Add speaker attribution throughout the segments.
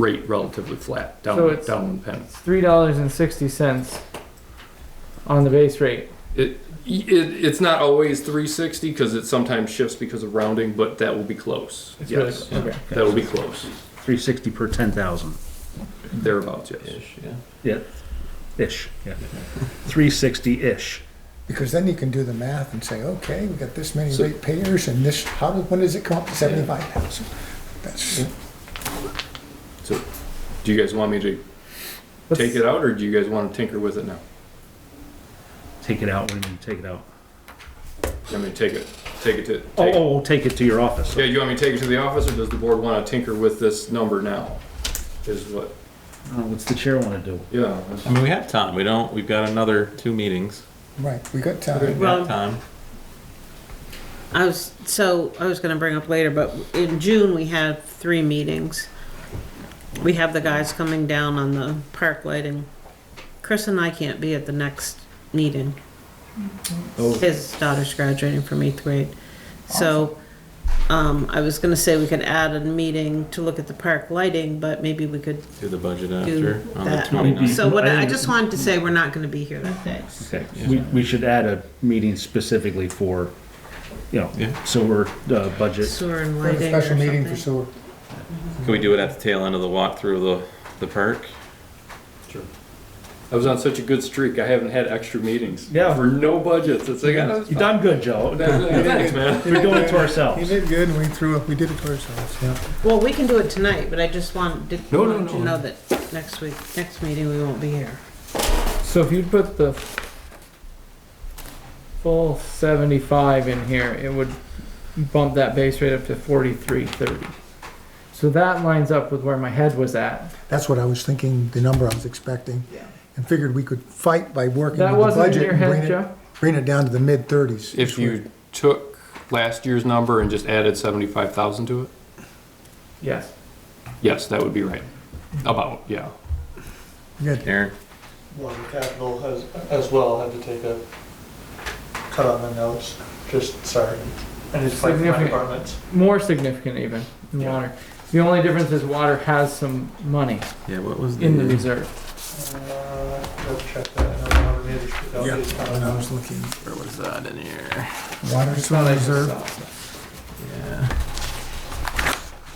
Speaker 1: rate relatively flat
Speaker 2: So
Speaker 1: down,
Speaker 2: it's-
Speaker 1: down one penny.
Speaker 2: three dollars and sixty cents on the base rate.
Speaker 1: It, it, it's not always three sixty, cause it sometimes shifts because of rounding, but that will be close.
Speaker 2: It's really-
Speaker 1: Yes,
Speaker 2: okay.
Speaker 1: that will be close,
Speaker 3: Three sixty per ten thousand,
Speaker 1: thereabouts, yes.
Speaker 4: Ish, yeah.
Speaker 3: ish, yeah. Three sixty-ish.
Speaker 5: Because then you can do the math and say, okay, we got this many
Speaker 1: So-
Speaker 5: ratepayers and this, how, did- when does it come up to seventy-five thousand? That's,
Speaker 1: So, do you guys want me to
Speaker 2: Let's-
Speaker 1: take it out, or do you guys wanna tinker with it now?
Speaker 3: Take it out, what do you mean, take it out?
Speaker 1: I mean, take it, take it to,
Speaker 3: Oh,
Speaker 1: take,
Speaker 3: oh, oh, take it to your office.
Speaker 1: yeah, you want me to take it to the office, or does the board wanna tinker with this number now? Is what,
Speaker 3: Oh, What's the chair wanna do?
Speaker 1: yeah,
Speaker 4: I mean, we have time. We don't. We've got another two meetings.
Speaker 5: right, we got
Speaker 4: We've
Speaker 5: time.
Speaker 4: got
Speaker 6: Well-
Speaker 4: time.
Speaker 6: I was, so, I was gonna bring up later, but in June, we had three meetings. We have the guys coming down on the park lighting. Chris and I can't be at the next meeting.
Speaker 1: Oh.
Speaker 6: His daughter's graduating from eighth grade. So, um, I was gonna say we could add a meeting to look at the park lighting, but maybe we could
Speaker 4: Do the budget
Speaker 6: do
Speaker 4: after on the
Speaker 6: that.
Speaker 4: 29th.
Speaker 6: So what, I just wanted to say, we're not gonna be here that day.
Speaker 3: Okay, we, we should add a meeting specifically for, you know,
Speaker 4: Yeah.
Speaker 3: sewer, uh, budget.
Speaker 6: Sewer and
Speaker 5: We have a
Speaker 6: lighting or
Speaker 5: special meeting for
Speaker 6: something.
Speaker 5: sewer.
Speaker 4: Can we do it at the tail end of the walk through the the park?
Speaker 1: I was on such a good streak, I haven't had extra meetings.
Speaker 3: Yeah.
Speaker 1: For no budgets, it's like, oh,
Speaker 3: You done good, Joe.
Speaker 1: thanks, man.
Speaker 3: We're doing it to
Speaker 5: He
Speaker 3: ourselves.
Speaker 5: did good, and we threw, we did it to ourselves, yeah.
Speaker 6: Well, we can do it tonight, but I just want, did,
Speaker 1: No, no,
Speaker 6: wanted to
Speaker 1: no.
Speaker 6: know that next week, next meeting, we won't be here.
Speaker 2: So if you put the full seventy-five in here, it would bump that base rate up to forty-three thirty. So that lines up with where my head was at.
Speaker 5: That's what I was thinking, the number I was expecting.
Speaker 2: Yeah.
Speaker 5: And figured we could fight by working
Speaker 2: That
Speaker 5: with the
Speaker 2: wasn't in
Speaker 5: budget
Speaker 2: your
Speaker 5: and bring
Speaker 2: head,
Speaker 5: it,
Speaker 2: Joe?
Speaker 5: bring it down to the mid-thirties.
Speaker 1: If you took last year's number and just added seventy-five thousand to it,
Speaker 2: Yes.
Speaker 1: yes, that would be right.
Speaker 4: Hmm.
Speaker 1: About, yeah.
Speaker 4: Aaron,
Speaker 7: Well, the capital has, as well, had to take a cut on the notes, just, sorry. And it's like my
Speaker 2: Significant.
Speaker 7: departments.
Speaker 2: More significant even than
Speaker 7: Yeah.
Speaker 2: water. The only difference is water has some money
Speaker 4: yeah, what was the,
Speaker 2: in
Speaker 1: Mm-hmm.
Speaker 2: the reserve.
Speaker 7: Uh, Let's check that, I don't know, maybe it's- no,
Speaker 5: Yeah,
Speaker 7: it's not
Speaker 5: when I
Speaker 7: enough.
Speaker 5: was looking,
Speaker 4: Where was that in here?
Speaker 5: water sewer reserve,
Speaker 4: Yeah,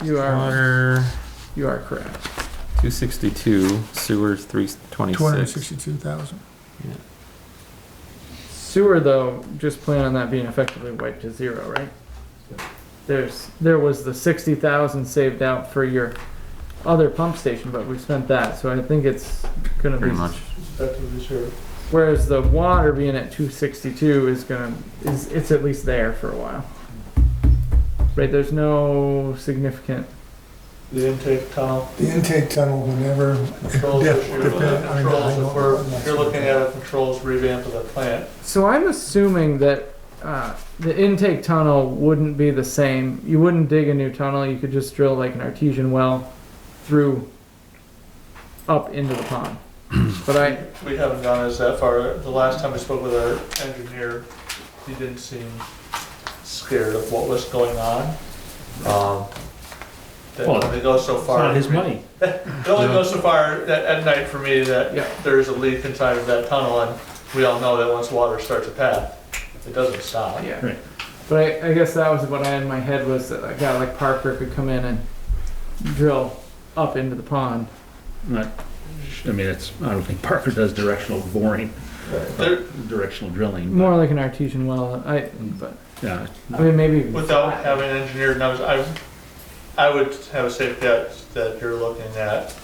Speaker 2: You are,
Speaker 4: water
Speaker 2: you are correct.
Speaker 4: two sixty two, sewers three twenty
Speaker 5: two hundred and
Speaker 4: six.
Speaker 5: sixty-two thousand.
Speaker 2: Sewer though, just plan on that being effectively wiped to zero, right? There's, there was the sixty thousand saved out for your other pump station, but we spent that, so I think it's gonna be.
Speaker 4: Pretty much.
Speaker 7: That's what it's here.
Speaker 2: Whereas the water being at two sixty-two is gonna, is, it's at least there for a while. Right, there's no significant,
Speaker 7: The intake tunnel,
Speaker 5: The intake tunnel, whenever,
Speaker 7: controls
Speaker 5: Yeah,
Speaker 7: issue,
Speaker 5: depend-
Speaker 7: the
Speaker 5: I mean,
Speaker 7: controls,
Speaker 5: I know-
Speaker 7: if we're, if you're looking at a controls revamp of the plant,
Speaker 2: so I'm assuming that, uh, the intake tunnel wouldn't be the same. You wouldn't dig a new tunnel, you could just drill like an artesian well through, up into the pond. But I,
Speaker 7: we haven't gone as that far. The last time I spoke with our engineer, he didn't seem scared of what was going on. Um, That
Speaker 3: Well,
Speaker 7: only goes so
Speaker 3: It's
Speaker 7: far.
Speaker 3: not his money.
Speaker 7: It only goes so far at, at night for me
Speaker 2: Yeah.
Speaker 7: that there is a leak inside of that tunnel and we all know that once water starts to path, it doesn't stop.
Speaker 2: Yeah.
Speaker 3: Right.
Speaker 2: But I, I guess that was what I had in my head was that a guy like Parker could come in and drill up into the pond.
Speaker 3: Not, I mean, it's, I don't think Parker does directional boring,
Speaker 7: There,
Speaker 3: directional drilling.
Speaker 2: More like an artesian well. I but
Speaker 3: Yeah,
Speaker 2: I mean maybe
Speaker 7: without having engineered numbers, I, I would have a safe bet that you're looking at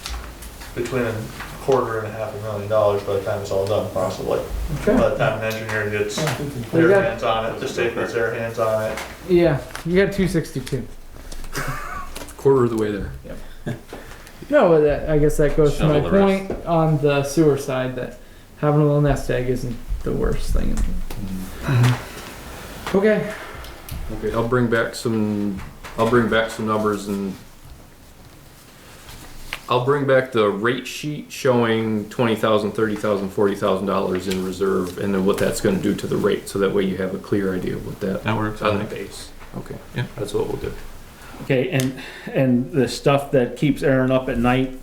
Speaker 7: between a quarter and a half a million dollars by the time it's all done, possibly.
Speaker 2: Okay.
Speaker 7: By the time an engineer gets
Speaker 2: Well, you
Speaker 7: their
Speaker 2: got-
Speaker 7: hands on it, the state gets their hands on it.
Speaker 2: Yeah, you got two sixty two.
Speaker 1: Quarter of the way there.
Speaker 2: No, but that, I guess that goes to
Speaker 4: Shovel
Speaker 2: my
Speaker 4: the rest.
Speaker 2: point on the sewer side that having a little nest egg isn't the worst thing. in the Okay.
Speaker 1: Okay, I'll bring back some, I'll bring back some numbers and I'll bring back the rate sheet showing twenty thousand, thirty thousand, forty thousand dollars in reserve and then what that's gonna do to the rate, so that way you have a clear idea of what that,
Speaker 4: That works. I
Speaker 1: on the
Speaker 4: think.
Speaker 1: base. Okay.
Speaker 4: Yeah.
Speaker 1: That's what we'll do.
Speaker 3: Okay, and, and the stuff that keeps Aaron up at night